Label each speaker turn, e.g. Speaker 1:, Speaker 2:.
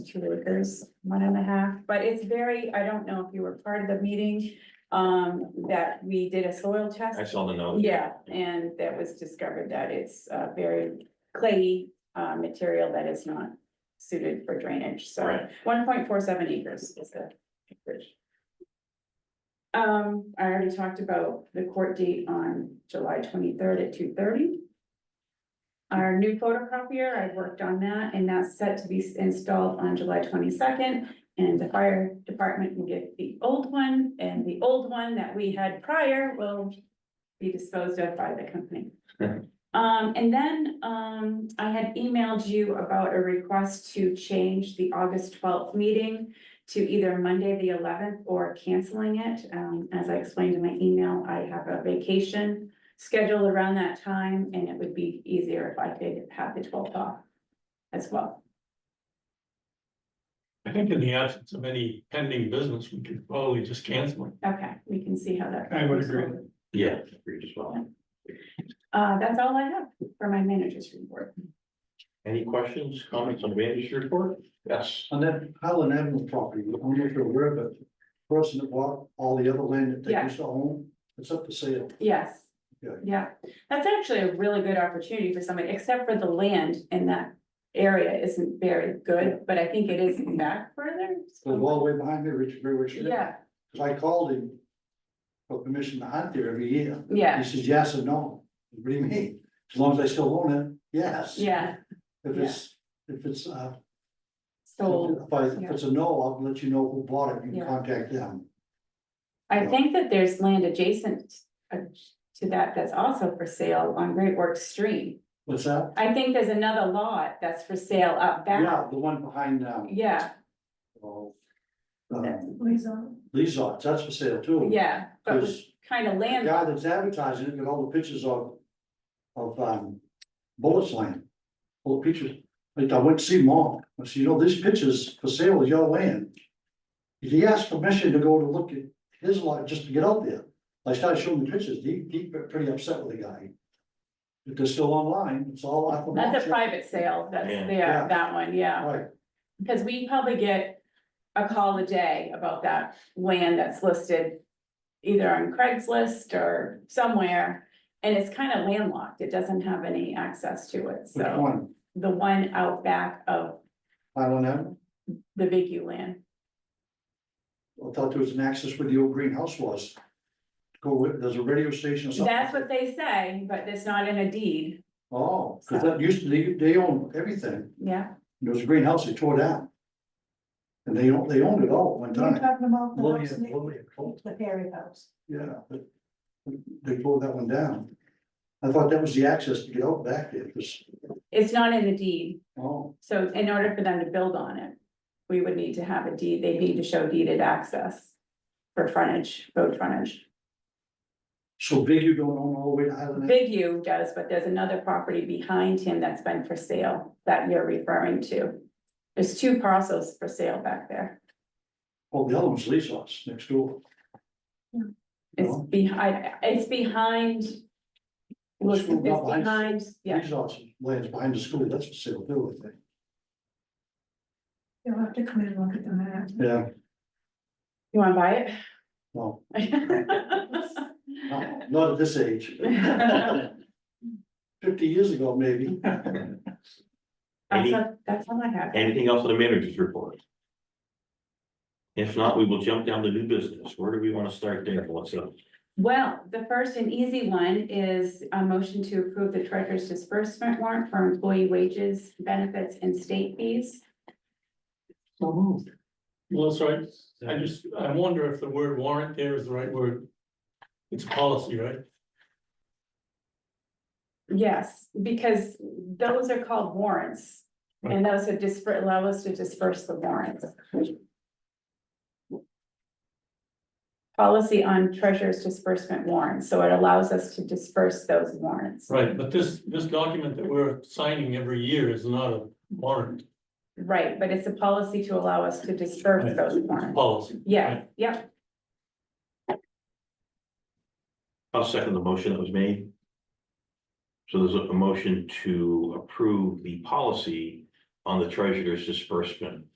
Speaker 1: two acres, one and a half, but it's very, I don't know if you were part of the meeting. Um, that we did a soil test.
Speaker 2: I saw the note.
Speaker 1: Yeah, and that was discovered that it's a very clayey uh material that is not suited for drainage, so
Speaker 2: Right.
Speaker 1: one point four seven acres is the acreage. Um, I already talked about the court date on July twenty-third at two thirty. Our new photocopier, I've worked on that, and that's set to be s- installed on July twenty-second. And the fire department will get the old one, and the old one that we had prior will be disposed of by the company. Um, and then, um, I had emailed you about a request to change the August twelfth meeting to either Monday, the eleventh, or canceling it. Um, as I explained in my email, I have a vacation scheduled around that time, and it would be easier if I could have the twelfth off as well.
Speaker 3: I think in the absence of any pending business, we could probably just cancel it.
Speaker 1: Okay, we can see how that.
Speaker 3: I would
Speaker 1: goes.
Speaker 3: agree.
Speaker 2: Yeah, agreed as well.
Speaker 1: Uh, that's all I have for my manager's report.
Speaker 2: Any questions, comments on the manager's report? Yes.
Speaker 4: On that Highland Avenue property, I don't know if you're aware, but the person that bought all the other land that they
Speaker 1: Yeah.
Speaker 4: used to own, it's up for sale.
Speaker 1: Yes.
Speaker 4: Yeah.
Speaker 1: Yeah, that's actually a really good opportunity for somebody, except for the land in that area isn't very good, but I think it is back further.
Speaker 4: The wall way behind me, Richard, very rich.
Speaker 1: Yeah,
Speaker 4: Cause I called him for permission to hunt there every year. He
Speaker 1: yeah,
Speaker 4: says, yes or no. What do you mean? As long as I still own it, yes.
Speaker 1: yeah,
Speaker 4: If it's, if it's, uh,
Speaker 1: so
Speaker 4: if I, if it's a no, I'll let you know who bought it. You
Speaker 1: Yeah.
Speaker 4: can contact them.
Speaker 1: I think that there's land adjacent uh, to that that's also for sale on Great Works Street.
Speaker 4: What's that?
Speaker 1: I think there's another lot that's for sale up back,
Speaker 4: Yeah, the one behind, um,
Speaker 1: yeah,
Speaker 4: oh, um, Lee's, that's for sale too.
Speaker 1: yeah, but with
Speaker 4: Cause
Speaker 1: kind of
Speaker 4: the
Speaker 1: land,
Speaker 4: guy that's advertising it, got all the pictures of, of, um, Bullis Land. All the pictures, like I went to see them all, I said, you know, these pictures for sale is your land. If he asked permission to go to look at his lot, just to get out there, I started showing the pictures, he, he got pretty upset with the guy. If they're still online, it's all off the
Speaker 1: that's a
Speaker 4: market.
Speaker 1: private sale, that's
Speaker 2: Yeah.
Speaker 1: there,
Speaker 4: Yeah.
Speaker 1: that one, yeah.
Speaker 4: Right,
Speaker 1: Because we probably get a call a day about that land that's listed either on Craigslist or somewhere. And it's kind of landlocked, it doesn't have any access to it,
Speaker 4: which
Speaker 1: so
Speaker 4: one,
Speaker 1: the one out back of
Speaker 4: Highland Avenue,
Speaker 1: the Big U land.
Speaker 4: I thought there was an access where the old greenhouse was. Go with, there's a radio station or something.
Speaker 1: That's what they say, but it's not in a deed,
Speaker 4: Oh, cause that used to, they, they owned everything.
Speaker 1: yeah.
Speaker 4: There was a greenhouse they tore down. And they, own- they owned it all at one
Speaker 5: You're
Speaker 4: time.
Speaker 5: talking about the house,
Speaker 4: Lillian-
Speaker 5: next-
Speaker 4: Lillian Colt,
Speaker 5: the Perry house.
Speaker 4: Yeah, but they tore that one down. I thought that was the access to get out back there, 'cause-
Speaker 1: It's not in the deed,
Speaker 4: oh,
Speaker 1: so in order for them to build on it, we would need to have a deed, they need to show deeded access for frontage, road frontage.
Speaker 4: so big you don't own all the way to Highland Avenue?
Speaker 1: Big U does, but there's another property behind him that's been for sale that you're referring to. There's two parcels for sale back there.
Speaker 4: Oh, the other one's Lee's house next door.
Speaker 5: Yeah.
Speaker 1: It's
Speaker 4: No?
Speaker 1: behind, it's behind. Looks,
Speaker 4: School
Speaker 1: it's
Speaker 4: lot.
Speaker 1: behind, yeah,
Speaker 4: Lee's house lands behind the school, that's for sale too, I think.
Speaker 5: You'll have to come in and look at the map.
Speaker 4: Yeah,
Speaker 1: you wanna buy it?
Speaker 4: well, not, not at this age. Fifty years ago, maybe.
Speaker 1: That's all, that's all I have.
Speaker 2: Anything else on the manager's report? If not, we will jump down to new business. Where do we want to start there? What's up?
Speaker 1: Well, the first and easy one is a motion to approve the treasurer's disbursement warrant for employee wages, benefits and state fees.
Speaker 3: So moved. Well, that's right. I just, I wonder if the word warrant there is the right word. It's policy, right?
Speaker 1: Yes, because those are called warrants. And those are disper, allow us to disperse the warrants. Policy on treasurer's disbursement warrants, so it allows us to disperse those warrants.
Speaker 3: Right, but this, this document that we're signing every year is not a warrant
Speaker 1: Right, but it's a policy to allow us to disperse those warrants.
Speaker 3: policy.
Speaker 1: Yeah, yeah,
Speaker 2: I'll second the motion that was made. So there's a a motion to approve the policy on the treasurer's disbursement